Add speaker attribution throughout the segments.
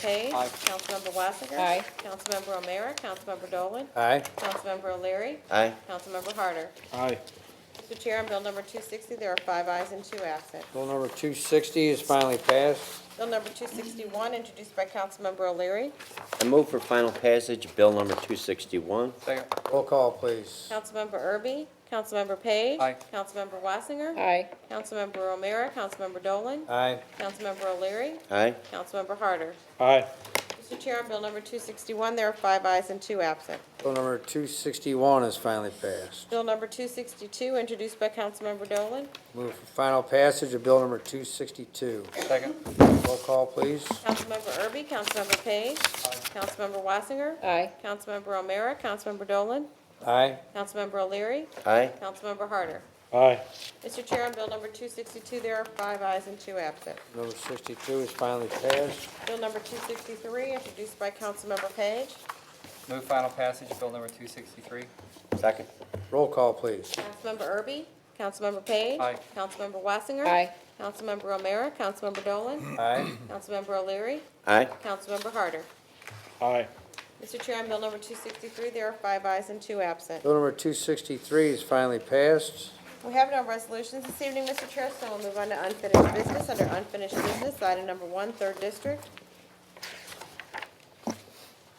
Speaker 1: Page.
Speaker 2: Aye.
Speaker 1: Councilmember Wassinger.
Speaker 3: Aye.
Speaker 1: Councilmember O'Meara. Councilmember Dolan.
Speaker 4: Aye.
Speaker 1: Councilmember O'Leary.
Speaker 5: Aye.
Speaker 1: Councilmember Harder.
Speaker 4: Aye.
Speaker 1: Mr. Chair, on Bill number 260, there are five ayes and two absent.
Speaker 4: Bill number 260 is finally passed.
Speaker 1: Bill number 261, introduced by Councilmember O'Leary.
Speaker 5: I move for final passage of bill number 261.
Speaker 2: Second.
Speaker 4: Roll call, please.
Speaker 1: Councilmember Erby. Councilmember Page.
Speaker 2: Aye.
Speaker 1: Councilmember Wassinger.
Speaker 3: aye,
Speaker 1: Councilmember O'Meara. Councilmember Dolan.
Speaker 4: Aye.
Speaker 1: Councilmember O'Leary.
Speaker 5: Aye.
Speaker 1: Councilmember Harder.
Speaker 4: Aye.
Speaker 1: Mr. Chair, on Bill number 261, there are five ayes and two absent.
Speaker 4: Bill number 261 is finally passed.
Speaker 1: Bill number 262, introduced by Councilmember Dolan.
Speaker 4: Move for final passage of bill number 262.
Speaker 2: Second.
Speaker 4: Roll call, please.
Speaker 1: Councilmember Erby, Councilmember Page. Councilmember Wassinger.
Speaker 3: aye,
Speaker 1: Councilmember O'Meara, Councilmember Dolan.
Speaker 4: Aye.
Speaker 1: Councilmember O'Leary.
Speaker 5: Aye.
Speaker 1: Councilmember Harder.
Speaker 4: Aye.
Speaker 1: Mr. Chair, on Bill number 262, there are five ayes and two absent.
Speaker 4: Number 62 is finally passed.
Speaker 1: Bill number 263, introduced by Councilmember Page.
Speaker 2: Move final passage of bill number 263.
Speaker 5: Second.
Speaker 4: Roll call, please.
Speaker 1: Councilmember Erby, Councilmember Page.
Speaker 2: Aye.
Speaker 1: Councilmember Wassinger.
Speaker 3: aye,
Speaker 1: Councilmember O'Meara, Councilmember Dolan.
Speaker 4: Aye.
Speaker 1: Councilmember O'Leary.
Speaker 5: Aye.
Speaker 1: Councilmember Harder.
Speaker 4: Aye.
Speaker 1: Mr. Chair, on Bill number 263, there are five ayes and two absent.
Speaker 4: Bill number 263 is finally passed.
Speaker 1: We have no resolutions this evening, Mr. Chair, so we'll move on to unfinished business. Under unfinished business, item number one, third district.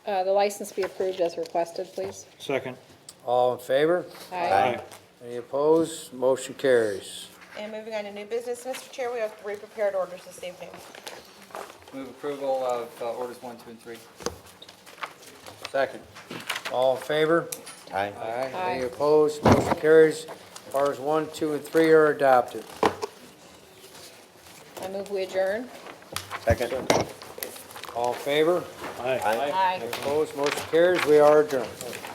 Speaker 3: uh, the license be approved as requested, please,
Speaker 6: Second,
Speaker 4: All in favor?
Speaker 3: aye,
Speaker 4: Any opposed? Motion carries.
Speaker 1: And moving on to new business, Mr. Chair, we have three prepared orders this evening.
Speaker 2: Move approval of uh, orders one, two, and three.
Speaker 4: Second. All in favor?
Speaker 5: Aye.
Speaker 4: Aye.
Speaker 3: Aye.
Speaker 4: Any opposed? Motion carries. Bars one, two, and three are adopted.
Speaker 3: I move we adjourn,
Speaker 5: Second.
Speaker 4: All in favor?
Speaker 6: aye.
Speaker 5: Aye.
Speaker 3: aye.
Speaker 4: Opposed? Motion carries. We are adjourned.